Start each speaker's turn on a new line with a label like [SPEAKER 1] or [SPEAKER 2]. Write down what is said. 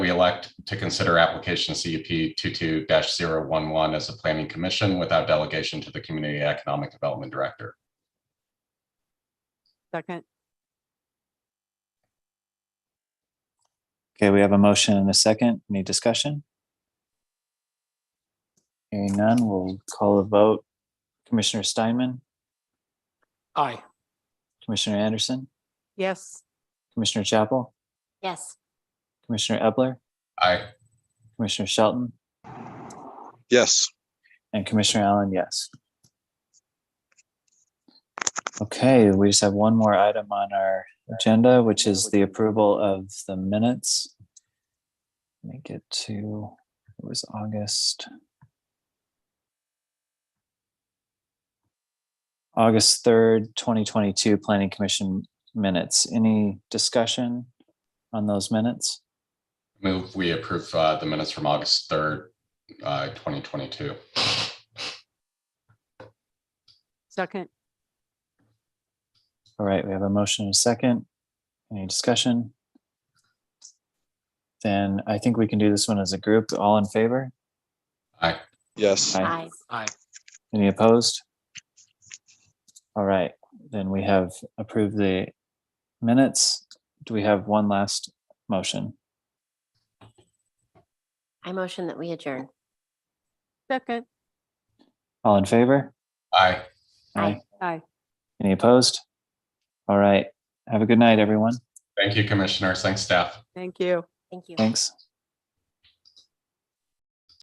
[SPEAKER 1] elect to consider application E CUP 22-011 as a planning commission without delegation to the Community Economic Development Director.
[SPEAKER 2] Second,
[SPEAKER 3] Okay, we have a motion and a second. Any discussion? Hearing none, we'll call a vote. Commissioner Steinman,
[SPEAKER 4] Aye.
[SPEAKER 3] Commissioner Anderson,
[SPEAKER 2] yes,
[SPEAKER 3] Commissioner Chapel,
[SPEAKER 5] Yes.
[SPEAKER 3] Commissioner Epler,
[SPEAKER 1] Aye.
[SPEAKER 3] Commissioner Shelton,
[SPEAKER 4] Yes.
[SPEAKER 3] and Commissioner Allen, yes. Okay, we just have one more item on our agenda, which is the approval of the minutes. Let me get to, it was August. August third, twenty twenty-two, Planning Commission minutes. Any discussion on those minutes?
[SPEAKER 1] Move, we approve uh, the minutes from August 3rd, uh, 2022.
[SPEAKER 2] second,
[SPEAKER 3] All right, we have a motion and a second. Any discussion? Then I think we can do this one as a group. All in favor?
[SPEAKER 1] Aye.
[SPEAKER 4] Yes.
[SPEAKER 3] Aye.
[SPEAKER 5] Aye.
[SPEAKER 4] Aye.
[SPEAKER 3] Any opposed? All right, then we have approved the minutes. Do we have one last motion?
[SPEAKER 5] I motion that we adjourn.
[SPEAKER 2] second,
[SPEAKER 3] All in favor?
[SPEAKER 1] Aye.
[SPEAKER 5] Aye.
[SPEAKER 2] aye.
[SPEAKER 3] Any opposed? All right, have a good night, everyone.
[SPEAKER 1] Thank you, Commissioners. Thanks, staff.
[SPEAKER 2] Thank you.
[SPEAKER 5] Thank you.
[SPEAKER 3] Thanks.